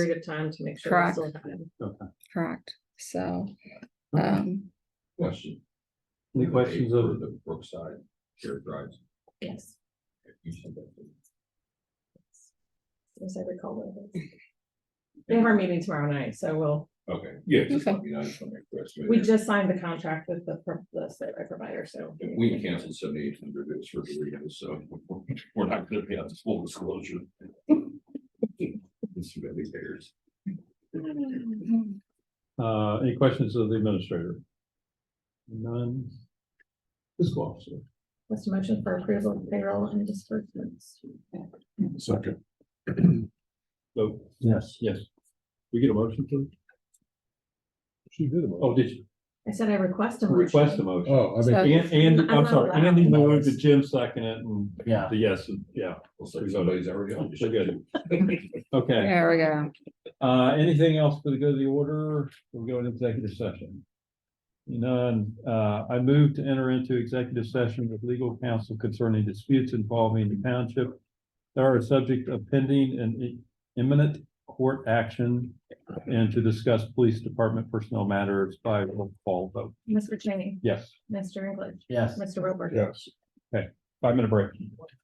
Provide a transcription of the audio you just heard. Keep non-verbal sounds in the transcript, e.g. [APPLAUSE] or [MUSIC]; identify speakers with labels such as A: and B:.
A: period of time to make sure.
B: Correct.
A: it's still happening.
B: correct, so,
C: Okay.
B: um,
D: Question.
C: Any
D: The
C: questions
D: date
C: of-
D: for The Brookside shared drives.
A: Yes,
D: if you send that to me.
A: as I recall. what it was. We have our meeting tomorrow night, so we'll,
D: Okay, yeah, just
B: Okay.
D: let me know, I just want to make sure. it's
A: we
D: made.
A: just signed the contract with the, pro- the survey provider, so.
D: And We canceled seventy-eight hundred, it was for the reason, so [LAUGHS] we're not gonna pay out this full disclosure. It's really theirs.
C: Uh, any questions of the administrator? None. Fiscal officer,
A: What's the motion for approval of payroll and disbursements?
D: Second.
C: vote. Yes. Yes. We get a motion to?
E: She did. a motion.
C: Oh, did you
A: I said I request a motion.
C: request a motion?
E: Oh, I mean,
B: so,
C: And, and,
A: I'm
C: I'm
A: not
C: sorry,
A: allowed.
C: Andy moved the Jim second it and
E: yeah,
C: the yes, and- yeah,
D: Well, so somebody's already on.
C: so good.
D: [LAUGHS]
C: Okay,
B: there we go,
C: uh, anything else for the good of the order? We'll go into executive session. None, uh, I move to enter into executive session with legal counsel concerning disputes involving the township. that are a subject of pending and imminent court action and to discuss police department personnel matters by roll call vote.
A: Mr. Cheney,
C: Yes,
A: Mr. English,
E: yes.
A: Mr. Roper.
D: Yes.
C: five minute break.